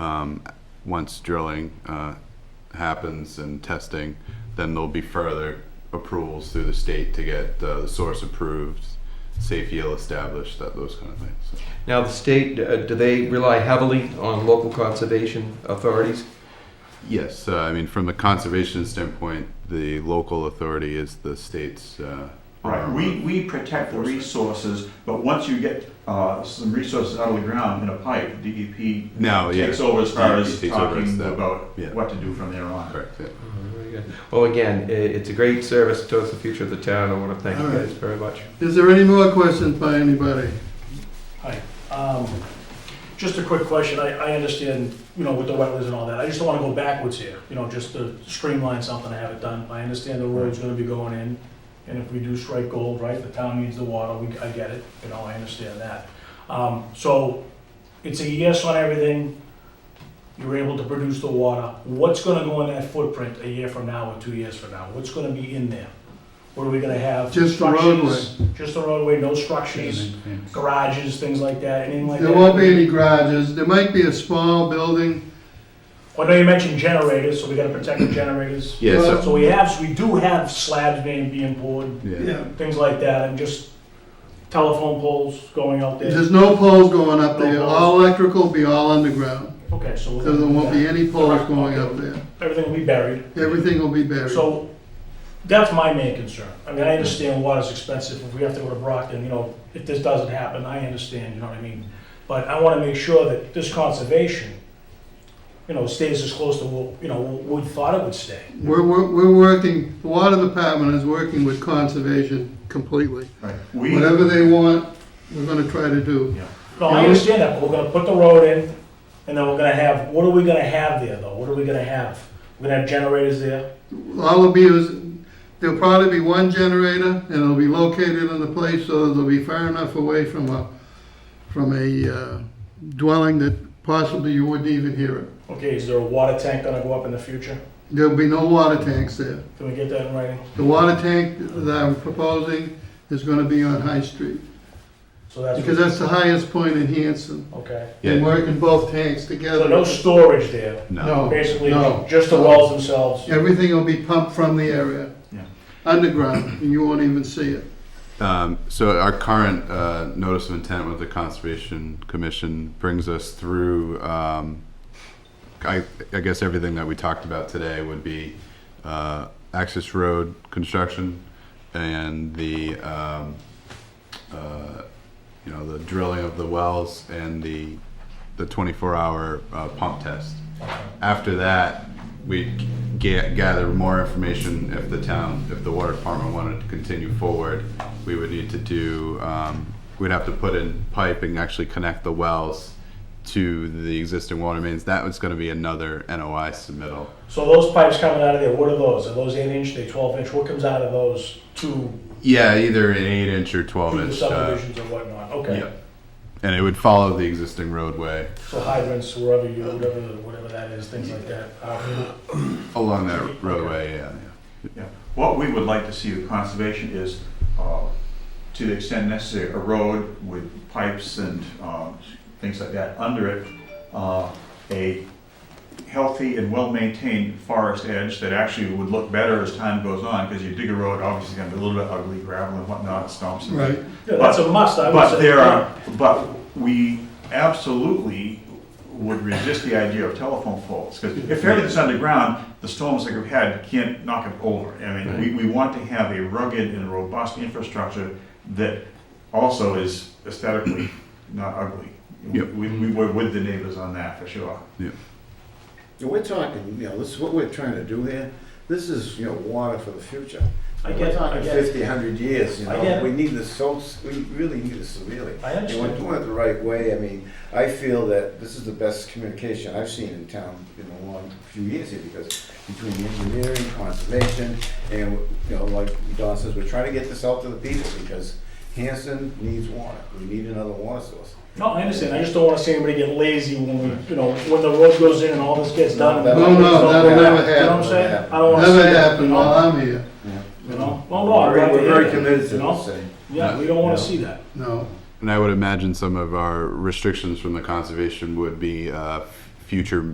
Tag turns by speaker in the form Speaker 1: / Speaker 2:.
Speaker 1: um, once drilling uh, happens and testing, then there'll be further approvals through the state to get uh, the source approved, safe yield established, that, those kind of things. So,
Speaker 2: Now, the state, uh, do they rely heavily on local conservation authorities?
Speaker 1: Yes, uh, I mean, from the conservation standpoint, the local authority is the state's. uh,
Speaker 3: Right,
Speaker 1: arm.
Speaker 4: Um,
Speaker 3: we, we protect the resources, but once you get, uh, some resources out of the ground in a pipe, DEP
Speaker 1: No, yeah. E
Speaker 3: takes over as far as
Speaker 1: Takes over as
Speaker 3: talking
Speaker 1: that.
Speaker 3: about
Speaker 1: yeah.
Speaker 3: what to do from there on.
Speaker 1: Correct, yeah.
Speaker 2: Very
Speaker 4: Mm-hmm.
Speaker 2: good. Well, again, i- it's a great service towards the future of the town. I want to thank you
Speaker 4: All right.
Speaker 2: guys very much.
Speaker 4: Is there any more questions by anybody?
Speaker 5: Um, Just a quick question, I, I understand, you know, with the wetlands and all that, I just don't wanna go backwards here, you know, just to streamline something, I have it done. I understand the road's gonna be going in, and if we do strike gold, right, the town needs the water, we, I get it, you know, I understand that. Um, so, it's a yes on everything, you're able to produce the water, what's gonna go in that footprint a year from now or two years from now? What's gonna be in there? What are we gonna have?
Speaker 4: Just the
Speaker 5: Structures? Just the roadway, no structures? garages, things like that, anything like that?
Speaker 4: There won't be any garages, there might be a small building.
Speaker 5: I know you mentioned generators, so we gotta protect the generators.
Speaker 1: Yeah, so,
Speaker 5: So we have, we do have slabs being, being poured,
Speaker 1: yeah.
Speaker 5: things like that, and just telephone poles going out there.
Speaker 4: There's no poles going up
Speaker 5: No
Speaker 4: there,
Speaker 5: poles.
Speaker 4: all electrical will be all underground,
Speaker 5: Okay, so.
Speaker 4: so
Speaker 5: we're
Speaker 4: there
Speaker 5: gonna do
Speaker 4: won't be
Speaker 5: that.
Speaker 4: any poles going up there.
Speaker 5: Everything will be buried.
Speaker 4: Everything will be buried.
Speaker 5: So that's my main concern. I mean, I understand water's expensive. If we have to go to Brockton, you know, if this doesn't happen, I understand, you know what I mean? But I want to make sure that this conservation, you know, stays as close to what, you know, what we thought it would stay.
Speaker 4: We're, we're, we're working, the water department is working with conservation completely.
Speaker 3: Right, we,
Speaker 4: Whatever they want, we're gonna try to do.
Speaker 5: No, I understand that, but we're gonna put the road in, and then we're gonna have, what are we gonna have there, though? What are we gonna have? We're gonna have generators there?
Speaker 4: All will be, is- there'll probably be one generator, and it'll be located in a place so that it'll be far enough away from a, from a uh, dwelling that possibly you wouldn't even hear it.
Speaker 5: Okay, is there a water tank gonna go up in the future?
Speaker 4: There'll be no water tanks there.
Speaker 5: Can we get that in writing?
Speaker 4: The water tank that I'm proposing is gonna be on High Street,
Speaker 5: So that's.
Speaker 4: because that's the highest point in Hanson.
Speaker 5: Okay.
Speaker 4: And
Speaker 1: Yeah.
Speaker 4: working both tanks
Speaker 5: So
Speaker 4: together.
Speaker 5: no storage there?
Speaker 1: No,
Speaker 5: Basically,
Speaker 4: Oh, No.
Speaker 5: just the wells themselves.
Speaker 4: Everything will be pumped from the area.
Speaker 3: Yeah.
Speaker 4: Underground, and you won't even see it.
Speaker 1: Um, so our current uh, notice of intent with the Conservation Commission brings us through, um, I, I guess everything that we talked about today would be uh, access road construction and the, um, uh, you know, the drilling of the wells and the, the 24-hour uh, pump test. After that, we ga- gather more information if the town, if the water department wanted to continue forward. We would need to do, um, we'd have to put in pipe and actually connect the wells to the existing water mains. That was gonna be another NOI submittal.
Speaker 5: So those pipes coming out of there, what are those? Are those eight inch, they twelve inch? What comes out of those to
Speaker 1: Yeah, either an eight inch or
Speaker 5: to
Speaker 1: twelve
Speaker 5: the
Speaker 1: inch. uh,
Speaker 5: subdivisions and whatnot?
Speaker 1: Yeah.
Speaker 5: Okay.
Speaker 1: And it would follow the existing roadway
Speaker 5: So hydrants, wherever you, whatever, whatever that is, things like that. Uh,
Speaker 1: along that roadway, yeah. yeah.
Speaker 3: yeah. what we would like to see with conservation is, uh, to the extent necessary, a road with pipes and, um, things like that under it, uh, a healthy and well-maintained forest edge that actually would look better as time goes on, because you dig a road, obviously it's gonna be a little bit ugly, gravel and whatnot, stumps and
Speaker 4: Right.
Speaker 5: Yeah, that's a must, I would say.
Speaker 3: But there are, but we absolutely would resist the idea of telephone poles, because if everything's underground, the storms that we've had can't knock it over. I mean, we, we want to have a rugged and robust infrastructure that also is aesthetically not ugly. We,
Speaker 1: Yep.
Speaker 3: we were with the neighbors on that, for sure.
Speaker 6: Yeah, We're talking, you know, this is what we're trying to do here. This is, you know, water for the future.
Speaker 5: I get
Speaker 6: We're
Speaker 5: it, I
Speaker 6: talking
Speaker 5: get it.
Speaker 6: fifty, hundred years, you
Speaker 5: I get
Speaker 6: know,
Speaker 5: it.
Speaker 6: we need this so, we really need this severely.
Speaker 5: I
Speaker 6: And we're
Speaker 5: understand.
Speaker 6: doing it the right way, I mean, I feel that this is the best communication I've seen in town in a long, few years here, because between the engineering, conservation, and, you know, like Don says, we're trying to get this out to the people, because Hanson needs water, we need another water source.
Speaker 5: No, I understand. I just don't want to see anybody get lazy when we, you know, when the road goes in and all this gets done.
Speaker 6: No,
Speaker 4: no, that'll
Speaker 5: You know
Speaker 4: never
Speaker 5: what I'm
Speaker 4: happen.
Speaker 5: saying? I don't want to see
Speaker 4: Never
Speaker 5: that.
Speaker 4: happened
Speaker 5: you know?
Speaker 4: while I'm here,
Speaker 5: You know? Well, no, I'm
Speaker 6: We're-
Speaker 5: glad to
Speaker 6: We're
Speaker 5: hear
Speaker 6: very
Speaker 5: that,
Speaker 6: committed to
Speaker 5: you know?
Speaker 6: this thing.
Speaker 5: Yeah, we don't want to see that.
Speaker 4: no.
Speaker 1: And I would imagine some of our restrictions from the conservation would be uh, future